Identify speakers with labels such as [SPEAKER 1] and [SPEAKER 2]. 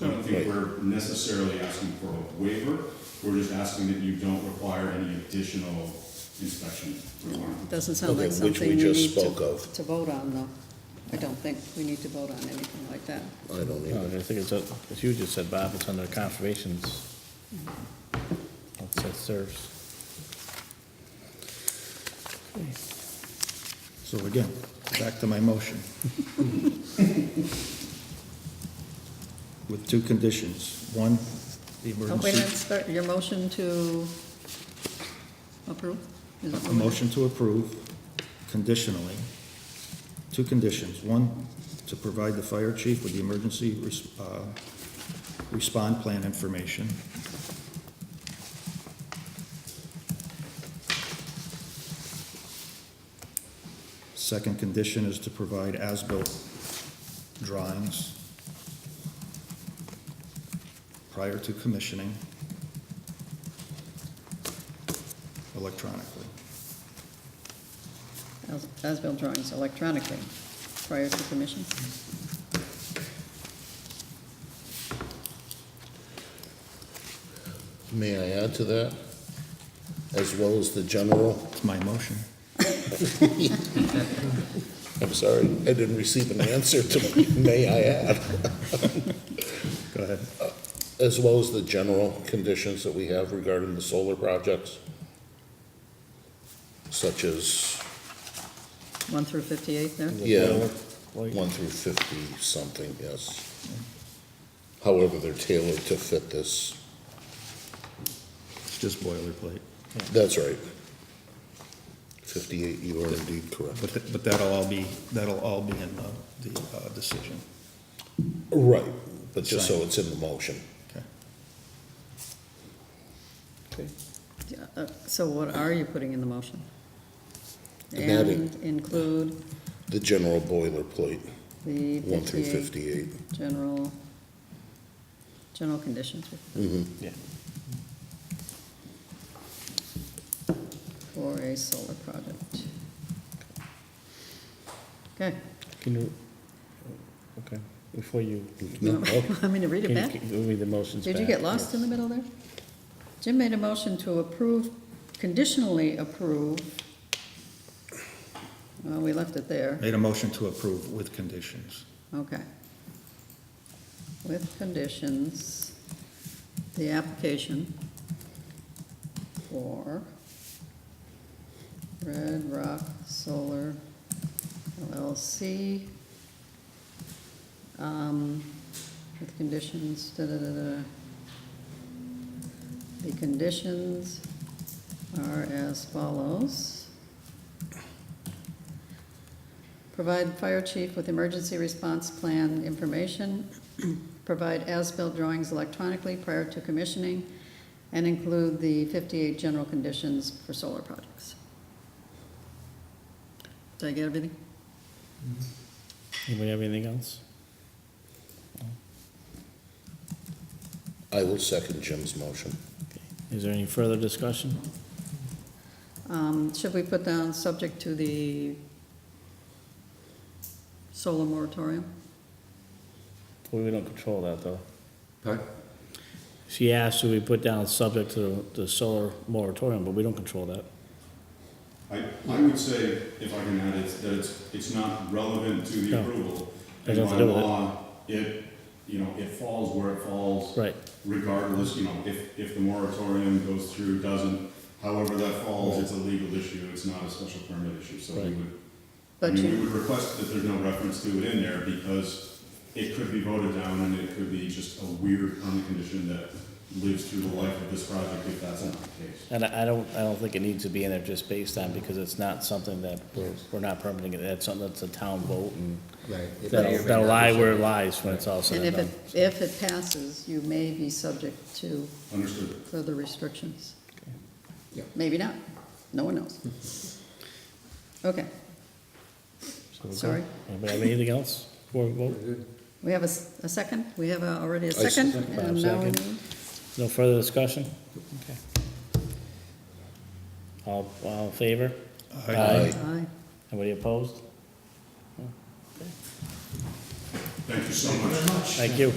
[SPEAKER 1] don't think we're necessarily asking for a waiver, we're just asking that you don't require any additional inspection requirements.
[SPEAKER 2] Doesn't sound like
[SPEAKER 3] Okay, which we
[SPEAKER 2] something we
[SPEAKER 3] just
[SPEAKER 2] need
[SPEAKER 3] spoke
[SPEAKER 2] to,
[SPEAKER 3] of.
[SPEAKER 2] to vote on, though. I don't think we need to vote on anything like that.
[SPEAKER 3] I don't
[SPEAKER 4] No,
[SPEAKER 3] either.
[SPEAKER 4] I think it's, a- as you just said, Bob, it's under conservation's, it says serves.
[SPEAKER 5] So again, back to my motion. With two conditions. One, the
[SPEAKER 2] Oh, wait a minute,
[SPEAKER 5] emergency,
[SPEAKER 2] start, your motion to approve? Is that
[SPEAKER 5] a
[SPEAKER 2] what-
[SPEAKER 5] motion to approve conditionally. Two conditions. One, to provide the fire chief with the emergency res- uh, respond plan information. Second condition is to provide as-built drawings prior to commissioning electronically.
[SPEAKER 2] As- As-built drawings electronically prior to commission?
[SPEAKER 3] May I add to that? As well as the general?
[SPEAKER 5] It's my motion.
[SPEAKER 3] I'm sorry, I didn't receive an answer to, may I add? Uh,
[SPEAKER 5] Go ahead.
[SPEAKER 3] As well as the general conditions that we have regarding the solar projects, such as,
[SPEAKER 2] One through fifty-eight there?
[SPEAKER 3] yeah,
[SPEAKER 4] Like-
[SPEAKER 3] one through fifty-something, yes. However, they're tailored to fit this,
[SPEAKER 5] It's just boilerplate.
[SPEAKER 3] that's right. Fifty-eight, you are indeed correct.
[SPEAKER 5] But, th- but that'll all be, that'll all be in the, the uh, decision.
[SPEAKER 3] Right, but just so it's in the motion.
[SPEAKER 5] Okay.
[SPEAKER 2] Yeah, uh, So what are you putting in the motion?
[SPEAKER 3] And that in-
[SPEAKER 2] And include
[SPEAKER 3] The general boilerplate,
[SPEAKER 2] the
[SPEAKER 3] one through
[SPEAKER 2] fifty-eight
[SPEAKER 3] fifty-eight.
[SPEAKER 2] general, general conditions
[SPEAKER 4] Yeah.
[SPEAKER 2] for a solar project. Okay.
[SPEAKER 4] Can you, okay, before you,
[SPEAKER 3] No, oh,
[SPEAKER 2] Want me to read it
[SPEAKER 4] can
[SPEAKER 2] back?
[SPEAKER 4] you give me the motions back?
[SPEAKER 2] Did you get lost in the middle there? Jim made a motion to approve, conditionally approve. Well, we left it there,
[SPEAKER 5] Made a motion to approve with conditions.
[SPEAKER 2] okay. With conditions, the application for Red Rock Solar LLC. Um, with conditions, da-da-da-da. The conditions are as follows. Provide fire chief with emergency response plan information. Provide as-built drawings electronically prior to commissioning, and include the fifty-eight general conditions for solar projects. Did I get everything?
[SPEAKER 4] Anybody have anything else?
[SPEAKER 3] I will second Jim's motion.
[SPEAKER 4] Is there any further discussion?
[SPEAKER 2] Um, Should we put down subject to the solar moratorium?
[SPEAKER 4] Well, we don't control that, though.
[SPEAKER 6] Huh?
[SPEAKER 4] She asked, should we put down subject to the solar moratorium, but we don't control that.
[SPEAKER 1] I, I would say, if I can add, it's, that it's, it's not relevant to the
[SPEAKER 4] No.
[SPEAKER 1] approval.
[SPEAKER 4] It has
[SPEAKER 1] And
[SPEAKER 4] to
[SPEAKER 1] by
[SPEAKER 4] do with it.
[SPEAKER 1] law, it, you know, it falls where it falls.
[SPEAKER 4] Right.
[SPEAKER 1] Regardless, you know, if, if the moratorium goes through, doesn't, however that falls, it's a legal issue, it's not a special permit issue, so we
[SPEAKER 4] Right.
[SPEAKER 1] would. I
[SPEAKER 2] But
[SPEAKER 1] mean, we
[SPEAKER 2] you,
[SPEAKER 1] would request that there's no reference to it in there, because it could be voted down, and it could be just a weird permit condition that lives through the life of this project, if that's not the case.
[SPEAKER 4] And I I don't, I don't think it needs to be in there just based on, because it's not something that we're, we're not permitting it. That's something that's a town vote and
[SPEAKER 6] Right.
[SPEAKER 4] that'll, that'll lie where it lies when it's all said
[SPEAKER 2] and
[SPEAKER 4] and
[SPEAKER 2] if
[SPEAKER 4] done.
[SPEAKER 2] it, if it passes, you may be subject to
[SPEAKER 1] Understood.
[SPEAKER 2] further restrictions.
[SPEAKER 6] Yeah.
[SPEAKER 2] Maybe not, no one knows. Okay,
[SPEAKER 4] So we're good.
[SPEAKER 2] sorry.
[SPEAKER 4] Anybody have anything else before we vote?
[SPEAKER 2] we have a, s- a second, we have a- already a
[SPEAKER 3] I
[SPEAKER 2] second,
[SPEAKER 3] second.
[SPEAKER 2] and now we
[SPEAKER 4] Second.
[SPEAKER 2] need,
[SPEAKER 4] No further discussion? Okay. All, all in favor? Uh,
[SPEAKER 3] Aye.
[SPEAKER 2] aye.
[SPEAKER 4] Anybody opposed?
[SPEAKER 1] Thank you so much.
[SPEAKER 4] Thank you.